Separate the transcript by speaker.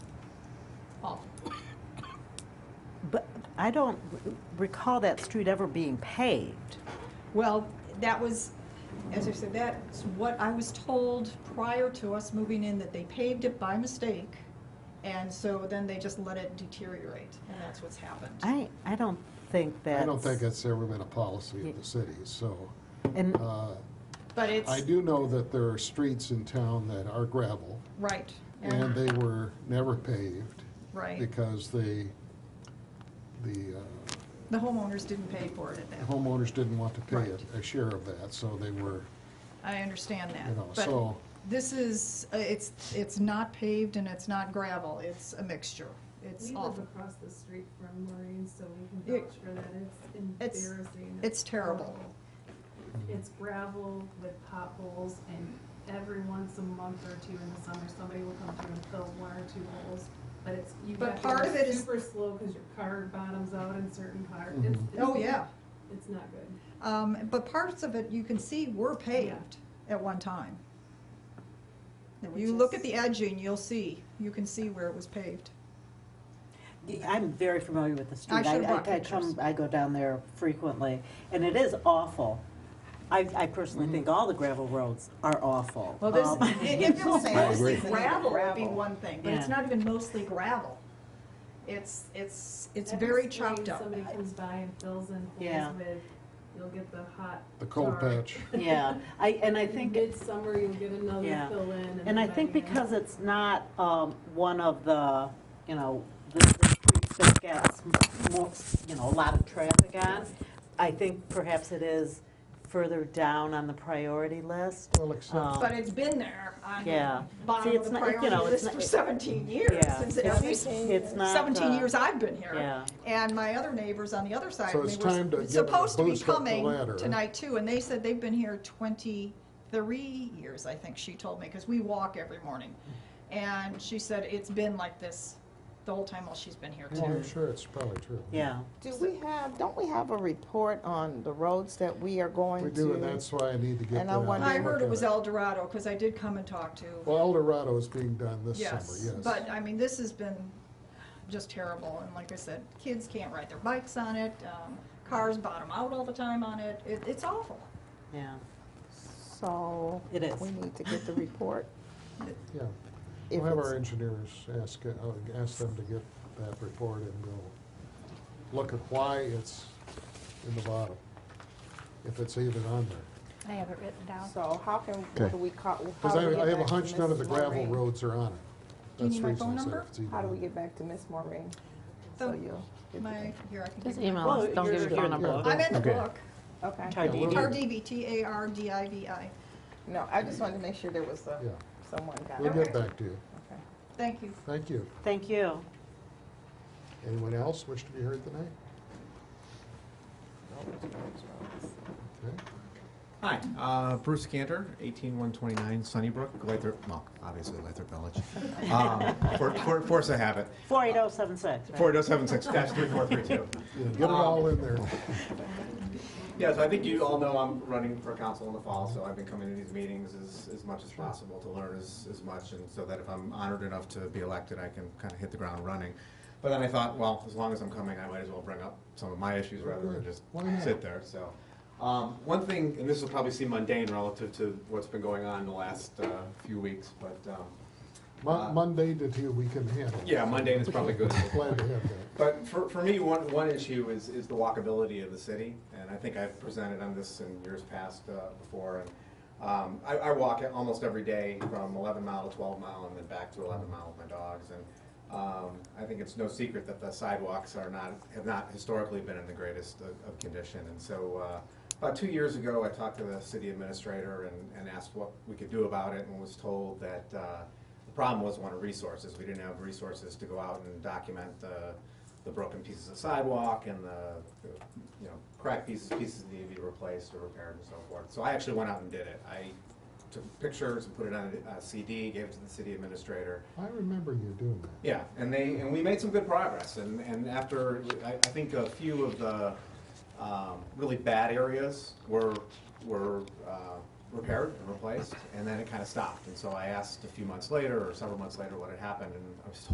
Speaker 1: I don't r- recall that street ever being paved.
Speaker 2: Well, that was, as I said, that's what I was told prior to us moving in, that they paved it by mistake. And so then they just let it deteriorate, and that's what's happened.
Speaker 1: I, I don't think that.
Speaker 3: I don't think it's ever been a policy of the city, so.
Speaker 1: And,
Speaker 3: uh,
Speaker 2: But
Speaker 3: I
Speaker 2: it's,
Speaker 3: do know that there are streets in town that are gravel,
Speaker 2: right,
Speaker 3: and
Speaker 2: and,
Speaker 3: they were never paved
Speaker 2: right.
Speaker 3: because they, the uh,
Speaker 2: The homeowners didn't pay for it at that.
Speaker 3: homeowners didn't want to pay
Speaker 2: Right.
Speaker 3: a- a share of that, so they were,
Speaker 2: I understand
Speaker 3: you know,
Speaker 2: that. But
Speaker 3: so.
Speaker 2: this is, uh, it's, it's not paved and it's not gravel. It's a mixture. It's
Speaker 4: We live
Speaker 2: awful.
Speaker 4: across the street from Maureen, so we
Speaker 2: Yeah.
Speaker 4: can vouch for that. It's
Speaker 2: It's-
Speaker 4: embarrassing.
Speaker 2: it's terrible.
Speaker 4: horrible. It's gravel with potholes and every once a month or two in the summer, somebody will come through and fill one or two holes. But it's, you
Speaker 2: But
Speaker 4: have to
Speaker 2: part of it
Speaker 4: go
Speaker 2: is-
Speaker 4: super slow because your car bottoms out in certain parts.
Speaker 3: Mhm.
Speaker 2: Oh, yeah.
Speaker 4: It's not good.
Speaker 2: Um, but parts of it, you can see, were paved at one time. You look at the edging, you'll see, you can see where it was paved.
Speaker 5: I'm very familiar with the street.
Speaker 2: I should've brought
Speaker 5: I come,
Speaker 2: pictures.
Speaker 5: I go down there frequently, and it is awful. I, I personally
Speaker 3: Mm-hmm.
Speaker 5: think all the gravel roads are awful.
Speaker 2: Well, this,
Speaker 5: Um,
Speaker 2: if it was
Speaker 6: I agree.
Speaker 2: mostly gravel, it'd be
Speaker 5: Gravel.
Speaker 2: one thing, but it's
Speaker 5: Yeah.
Speaker 2: not even mostly gravel. It's, it's, it's
Speaker 4: Every
Speaker 2: very
Speaker 4: spring,
Speaker 2: chopped up.
Speaker 4: Somebody comes by and fills in
Speaker 5: Yeah.
Speaker 4: holes with, you'll get the hot.
Speaker 3: The cold
Speaker 4: tar.
Speaker 3: patch.
Speaker 5: Yeah, I, and I think,
Speaker 4: Midsummer, you'll get another
Speaker 5: Yeah.
Speaker 4: fill in.
Speaker 5: and I
Speaker 4: then
Speaker 5: think
Speaker 4: by the end-
Speaker 5: because it's not, um, one of the, you know, the, the streets that gets more, you know, a lot of traffic on, I think perhaps it is further down on the priority list.
Speaker 3: Well, except,
Speaker 5: Um,
Speaker 2: But it's been there on the
Speaker 5: Yeah.
Speaker 2: bottom
Speaker 5: See,
Speaker 2: of
Speaker 5: it's
Speaker 2: the
Speaker 5: not- you
Speaker 2: priority
Speaker 5: know, it's
Speaker 2: list
Speaker 5: not-
Speaker 2: for seventeen years,
Speaker 5: Yeah.
Speaker 2: since
Speaker 5: It's-
Speaker 2: at least
Speaker 5: It's not.
Speaker 2: seventeen
Speaker 5: uh,
Speaker 2: years I've been here.
Speaker 5: Yeah.
Speaker 2: And my other neighbors on the other side,
Speaker 3: So
Speaker 2: they
Speaker 3: it's time to
Speaker 2: were
Speaker 3: give it a
Speaker 2: supposed to be
Speaker 3: boost up the
Speaker 2: coming
Speaker 3: ladder.
Speaker 2: tonight too, and they said they've been here twenty-three years, I think she told me, because we walk every morning. And she said it's been like this the whole time while she's been here
Speaker 3: well, I'm
Speaker 2: too.
Speaker 3: sure it's probably true.
Speaker 5: Yeah.
Speaker 7: Do we have, don't we have a report on the roads that we are going to?
Speaker 3: We do, and that's why I need to get that.
Speaker 7: And I wonder-
Speaker 2: I
Speaker 3: and
Speaker 2: heard it
Speaker 3: look
Speaker 2: was
Speaker 3: at
Speaker 2: El Dorado, because I did come and talk to.
Speaker 3: Well, El Dorado is being done this summer,
Speaker 2: Yes,
Speaker 3: yes.
Speaker 2: but I mean, this has been just terrible, and like I said, kids can't ride their bikes on it, um, cars bottom out all the time on it, it, it's awful.
Speaker 5: Yeah.
Speaker 7: So.
Speaker 5: It is.
Speaker 7: We need to get the report.
Speaker 3: Yeah,
Speaker 7: if
Speaker 3: we'll have
Speaker 7: it's-
Speaker 3: our engineers ask, uh, ask them to get that report and we'll look at why it's in the bottom, if it's even on there.
Speaker 8: I have it written down.
Speaker 7: So how can,
Speaker 6: Okay.
Speaker 7: what do we call? how
Speaker 3: Because
Speaker 7: do we
Speaker 3: I,
Speaker 7: get
Speaker 3: I have a
Speaker 7: back to
Speaker 3: hunch none of the
Speaker 7: Mrs.
Speaker 3: gravel
Speaker 7: Maureen?
Speaker 3: roads are on it.
Speaker 2: Do you
Speaker 3: That's
Speaker 2: need
Speaker 3: the
Speaker 2: my
Speaker 3: reason
Speaker 2: phone
Speaker 3: I said
Speaker 2: number?
Speaker 3: if it's even
Speaker 7: How do we
Speaker 3: on
Speaker 7: get back to Miss Maureen? So
Speaker 2: So,
Speaker 7: you'll. get the-
Speaker 2: Um, My, here, I can give
Speaker 6: Just
Speaker 2: you. my-
Speaker 6: email us, don't give your phone number.
Speaker 2: I'm in the
Speaker 6: Okay.
Speaker 2: book,
Speaker 7: Okay.
Speaker 3: Yeah, we'll-
Speaker 2: Tardivi, T-A-R-D-I-V-I,
Speaker 7: No, I just wanted to make sure there was a,
Speaker 3: Yeah,
Speaker 7: someone got
Speaker 3: we'll
Speaker 7: it.
Speaker 3: get back to you.
Speaker 7: Okay.
Speaker 2: thank you.
Speaker 3: Thank you.
Speaker 5: Thank you.
Speaker 3: Anyone else wish to be heard tonight? Okay.
Speaker 9: Hi, uh, Bruce Cantor, 18129 Sunnybrook, Lathrop, well, obviously Lathrop Village. Um, for, for, force of habit.
Speaker 5: 48076, right?
Speaker 9: 48076-3432.
Speaker 3: Yeah, Get it all in there.
Speaker 9: Yeah, so I think you all know I'm running for council in the fall, so I've been coming to these meetings as, as much as possible to learn as, as much, and so that if I'm honored enough to be elected, I can kind of hit the ground running. But then I thought, well, as long as I'm coming, I might as well bring up some of my issues rather than just
Speaker 3: Why not?
Speaker 9: sit there, so. Um, one thing, and this will probably seem mundane relative to what's been going on in the last, uh, few weeks, but, um,
Speaker 3: Mon-
Speaker 9: Uh,
Speaker 3: Monday to two, we can handle. it.
Speaker 9: yeah, Monday is probably good.
Speaker 3: Glad to have that.
Speaker 9: But for, for me, one, one issue is, is the walkability of the city, and I think I've presented on this in years past uh, before. And um, I, I walk it almost every day from 11 mile to 12 mile and then back to 11 mile with my dogs. And um, I think it's no secret that the sidewalks are not, have not historically been in the greatest of, of condition. And so uh, about two years ago, I talked to the city administrator and, and asked what we could do about it and was told that uh, the problem was one of resources. We didn't have resources to go out and document the, the broken pieces of sidewalk and the, the, you know, cracked pieces, pieces that need to be replaced or repaired and so forth. So I actually went out and did it. I took pictures and put it on a CD, gave it to the city administrator.
Speaker 3: I remember you doing that.
Speaker 9: Yeah, and they, and we made some good progress, and, and after, I, I think a few of the, um, really bad areas were, were, uh, repaired and replaced, and then it kinda stopped, and so I asked a few months later, or several months later, what had happened, and I was told